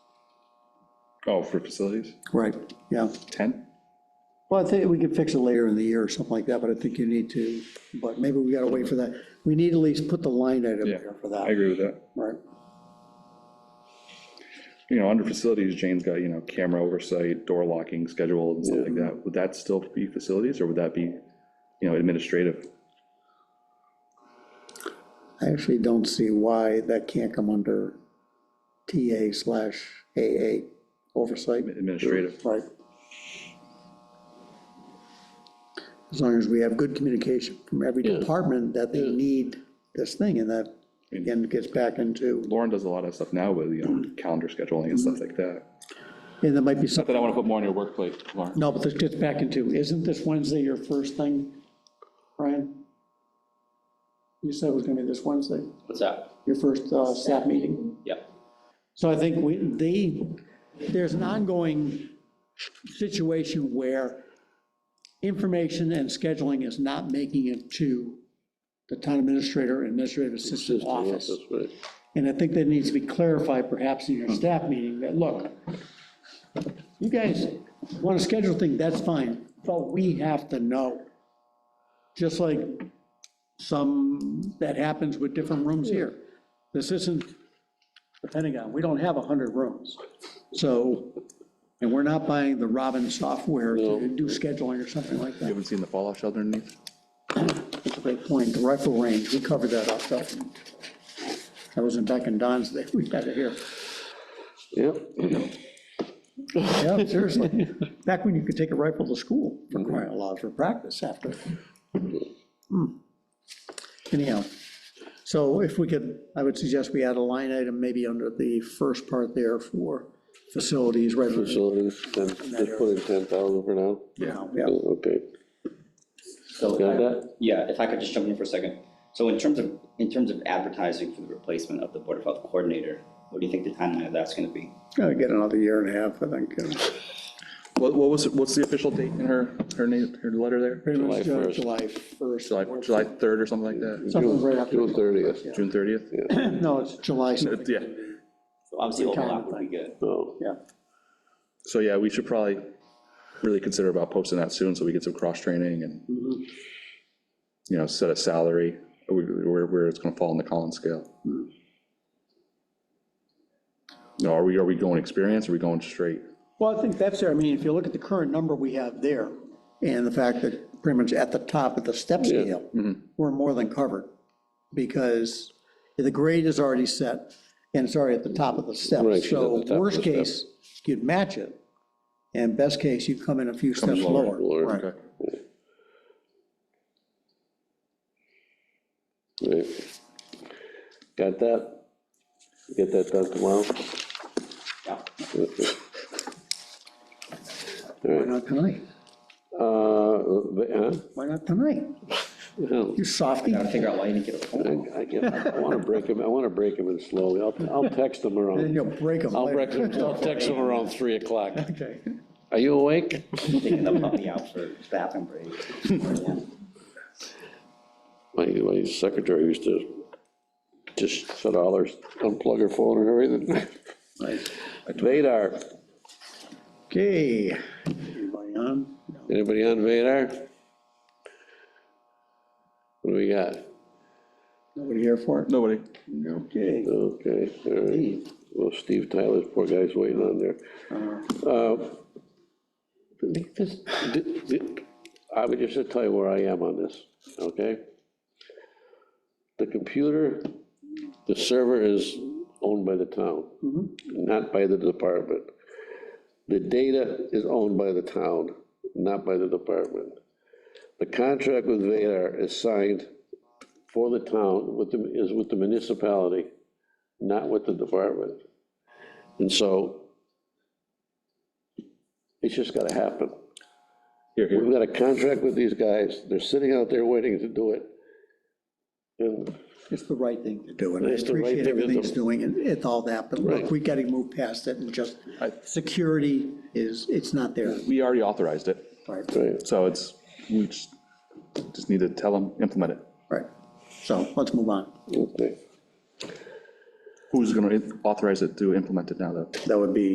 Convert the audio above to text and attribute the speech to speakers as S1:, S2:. S1: Oh, for facilities,
S2: Right, yeah.
S1: 10?
S2: Well, I think we could fix it later in the year or something like that, but I think you need to, but maybe we gotta wait for that. We need to at least put the line item
S1: Yeah,
S2: there for
S1: I
S2: that,
S1: agree with that.
S2: right?
S1: You know, under facilities, Jane's got, you know, camera oversight, door locking schedule and stuff like that. Would that still be facilities or would that be, you know, administrative?
S2: I actually don't see why that can't come under TA slash AA oversight.
S1: Administrative.
S2: Right. As long as we have good communication from every
S3: Yeah.
S2: department that they need this thing, and that, again, gets back into,
S1: Lauren does a lot of stuff now with, you know, calendar scheduling and stuff like that.
S2: and there might be something.
S1: But I want to put more on your workplace, Lauren.
S2: No, but this gets back into, isn't this Wednesday your first thing, Brian? You said it was gonna be this Wednesday,
S3: What's that?
S2: your first uh, staff meeting.
S3: Yep.
S2: So I think we, they, there's an ongoing situation where information and scheduling is not making it to the town administrator, administrative assistant office.
S3: That's right.
S2: And I think that needs to be clarified perhaps in your staff meeting, that, look, you guys want to schedule things, that's fine, but we have to know. Just like some, that happens with different rooms here. This isn't the Pentagon, we don't have 100 rooms. So, and we're not buying the Robin software to do scheduling or something like
S1: You
S2: that.
S1: haven't seen the fallout shelter underneath?
S2: That's a great point, the rifle range, we covered that up, that that wasn't back in Don's day, we had it here.
S3: Yep.
S2: Yeah, seriously. Back when you could take a rifle to school for crying out loud for practice after. Hmm. Anyhow, so if we could, I would suggest we add a line item maybe under the first part there for facilities, right?
S4: facilities, then just put in ten thousand for now?
S2: Yeah, yeah.
S4: Okay,
S3: So,
S4: Got
S3: if I-
S4: that?
S3: yeah, if I could just jump in for a second. So in terms of, in terms of advertising for the replacement of the Board of Health Coordinator, what do you think the timeline of that's gonna be?
S2: Gotta get another year and a half, I think. you know.
S1: What, what was, what's the official date in her, her name, her letter there?
S2: Pretty much
S4: July
S2: uh,
S4: 1st.
S2: July 1st.
S1: July, July 3rd or something like that?
S2: Something right after,
S4: June thirtieth,
S1: June 30th?
S2: no, it's July something.
S1: Yeah.
S3: So Obviously,
S2: Kind of
S3: overlap would be good.
S4: no,
S2: Yeah.
S1: So yeah, we should probably really consider about posting that soon, so we get some cross-training and, you know, set a salary, where, where it's gonna fall on the Collins scale. No, are we, are we going experience, or are we going straight?
S2: Well, I think that's there. I mean, if you look at the current number we have there, and the fact that pretty much at the top of the step scale,
S4: Mm-hmm.
S2: we're more than covered, because the grade is already set, and it's already at the top of the step.
S4: Right, she's at the
S2: So
S4: top of the
S2: worst
S4: step.
S2: case, you'd match it, and best case, you come in a few steps
S1: lower,
S2: lower.
S4: lower,
S2: Right.
S1: Okay.
S4: right. Got that? Get that done tomorrow?
S3: Yeah.
S2: Why not tonight?
S4: Uh, the-
S2: Why not tonight?
S4: huh? Hell,
S2: You softy.
S3: Gotta figure out why you didn't get a phone.
S4: I, I get- I wanna break him, I wanna break him in slowly, I'll, I'll text him
S2: Then
S4: around,
S2: you'll break them
S4: I'll
S2: later.
S4: break him, I'll text him around three o'clock.
S2: Okay.
S4: Are you awake?
S3: Taking the puppy out for bathroom break. Yeah.
S4: My, my secretary used to just shut all her, unplug her phone and everything. Vadar,
S2: Okay. Anybody on? No.
S4: anybody on Vadar? What do we got?
S2: Nobody here for it?
S1: Nobody?
S2: Okay.
S4: Okay, all right. Well, Steve Tyler's poor guy's waiting on there. Uh, this- th- th- I would just tell you where I am on this, okay? The computer, the server is owned by the town, not by the department. The data is owned by the town, not by the department. The contract with Vadar is signed for the town, with the, is with the municipality, not with the department. And so it's just gotta happen.
S1: Here, here.
S4: We've got a contract with these guys, they're sitting out there waiting to do it. And
S2: It's the right thing to do, and I
S4: It's the right
S2: appreciate
S4: thing to
S2: everything it's
S4: do.
S2: doing and it's all that, but look,
S4: Right.
S2: we gotta move past it and just,
S1: I-
S2: security is, it's not there.
S1: We already authorized it,
S2: Right,
S4: Right,
S1: so it's, we just, just need to tell them, implement it.
S2: right. So let's move on.
S4: okay.
S1: Who's gonna authorize it to implement it now, though?
S2: That would be